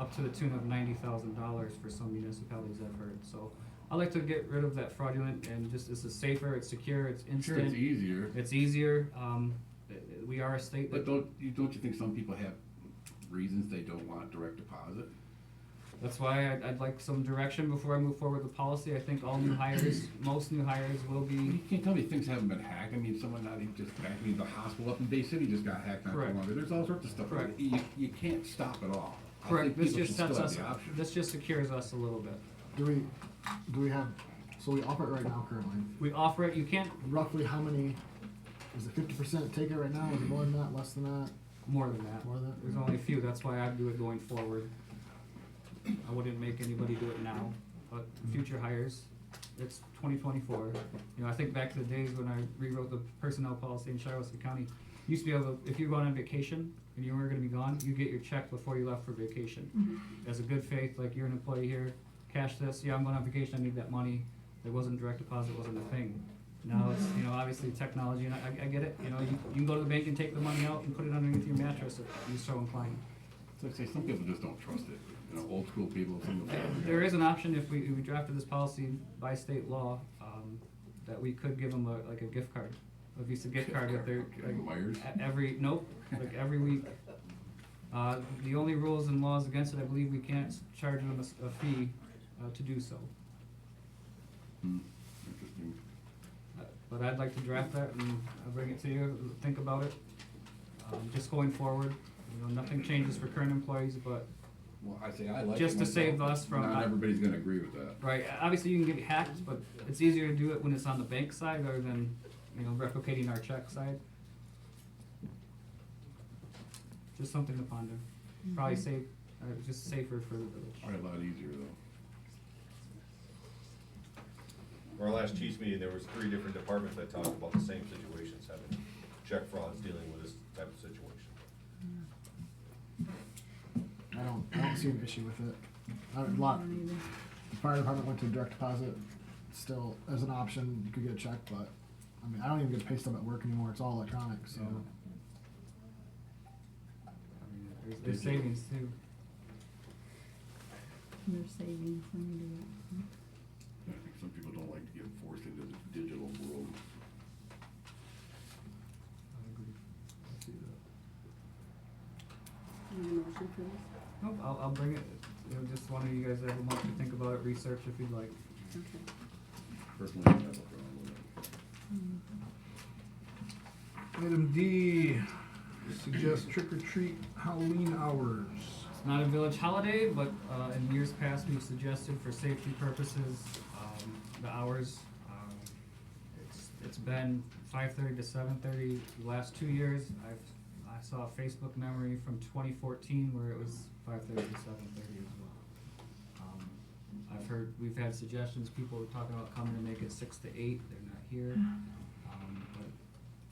up to the tune of ninety thousand dollars for some municipalities I've heard, so. I like to get rid of that fraudulent and just, this is safer, it's secure, it's Sure, it's instant, easier, it's easier, um, uh, uh, we are a state but that, don't, you, don't you think some people have reasons they don't want direct deposit? that's why I'd, I'd like some direction before I move forward with the policy, I think all new hires, most new hires will You be, can't tell me things haven't been hacked, I mean, someone not even just hacked, I mean, the hospital up in Bay City just got hacked not too Correct. long ago, there's all sorts of stuff. Correct. You, you can't stop it all. I correct, think this people just should sets still us, have the option. this just secures us a little bit. Do we, do we have, so we operate right now currently, We offer it, you can't, roughly how many, is it fifty percent take it right now, is it more than that, less than that? more than that, More than that? there's only a few, that's why I'd do it going forward. I wouldn't make anybody do it now, but Mm-hmm. future hires, it's twenty twenty-four. You know, I think back to the days when I rewrote the personnel policy in Shiawassee County, you used to be able, to if you were going on vacation and you were gonna be gone, you get your check before you left for vacation. As a good faith, like you're an employee here, cash this, yeah, I'm going on vacation, I need that money, there wasn't direct deposit, wasn't a thing. Now it's, you know, obviously technology, and I, I- I get it, you know, you, you can go to the bank and take the money out and put it underneath your mattress if you're so inclined. So I say, some people just don't trust it, you know, old school people, some of them. There is an option if we, if we drafted this policy by state law, um, that we could give them a, like a gift card, a Visa gift card if they're, Okay, like, Wires. e- every, nope, like every week. Uh, the only rules and laws against it, I believe we can't charge them a s- a, fee, uh, to do so. Hmm, Interesting. Uh, But I'd like to draft that and I'll bring it to you, think about it. Um, just going forward, you know, nothing changes for current employees, but Well, I say, I like it Just to myself, save but us from- Not everybody's gonna agree with that. Right. Obviously, you can get hacked, but it's easier to do it when it's on the bank side rather than, you know, replicating our check side. Just something to ponder. Probably safe, uh, just safer for the village. Probably a lot easier though. Our last chief's meeting, there was three different departments that talked about the same situations, having check frauds, dealing with this type of situation. I don't, I don't see an issue with it. I don't- A lot, the fire department went to direct deposit, still as an option, you could get a check, but, I mean, I don't even get a pay stub at work anymore, it's all electronic, so. I mean, There's, there's Did you- savings too. They're saving when you do it. I think some people don't like to get forced into the digital world. motion for this? Nope, I'll, I'll bring it, you know, just one of you guys have a month to think about it, research if you'd like. Okay. Personally, I have a problem with it. Item D, suggest trick or treat Halloween hours. It's not a village holiday, but, uh, in years past, we've suggested for safety purposes, um, the hours. Um, It's, it's been five thirty to seven thirty the last two years. I've, I saw a Facebook memory from twenty fourteen where it was five thirty to seven thirty as well. Um, I've heard, we've had suggestions, people were talking about coming to make it six to eight, they're not here. Um, but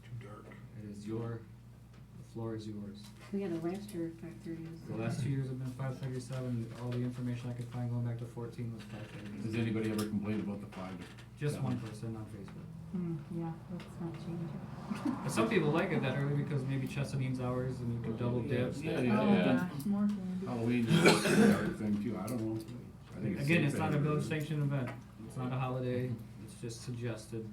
Too dark. it is your, the floor is yours. We had a last year at five thirty. The last two years have been five thirty-seven, all the information I could find going back to fourteen was five Has thirty-seven. anybody ever complained about the five? Just one person on Facebook. Hmm, yeah, let's not change it. But some people like it that early because maybe Chesapeake's hours and you can double dip. Yeah, yeah, Oh, yeah. gosh, more candy. Halloween is a dark thing too, I don't know. I think Again, it's safe not a anyway. village sanctioned event, it's not a holiday, it's just suggested.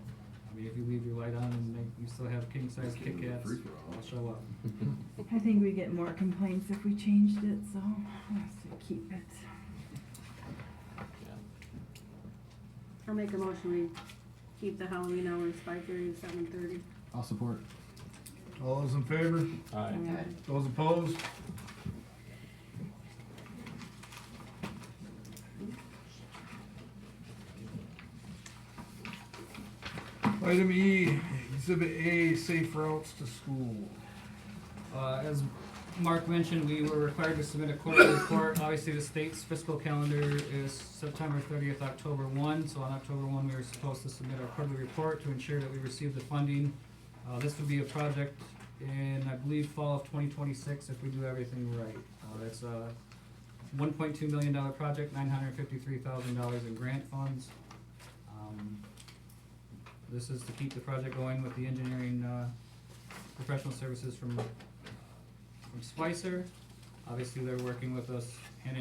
I mean, if you leave your light on and make, you still have king-size Kids Kit are Kats, free for all. I'll show up. I think we get more complaints if we changed it, so let's keep it. I'll make a motion, we keep the Halloween hours five thirty to seven thirty. I'll support. All those in favor? Those opposed? Item E, Exhibit A, safe routes to school. Uh, as Mark mentioned, we were required to submit a quarterly report. Obviously, the state's fiscal calendar is September thirtieth, October one, so on October one, we were supposed to submit our quarterly report to ensure that we received the funding. Uh, this would be a project in, I believe, fall of twenty twenty-six if we do everything right. Uh, it's a one point two million dollar project, nine hundred fifty-three thousand dollars in grant funds. Um, This is to keep the project going with the engineering, uh, professional services from from Spicer. Obviously, they're working with us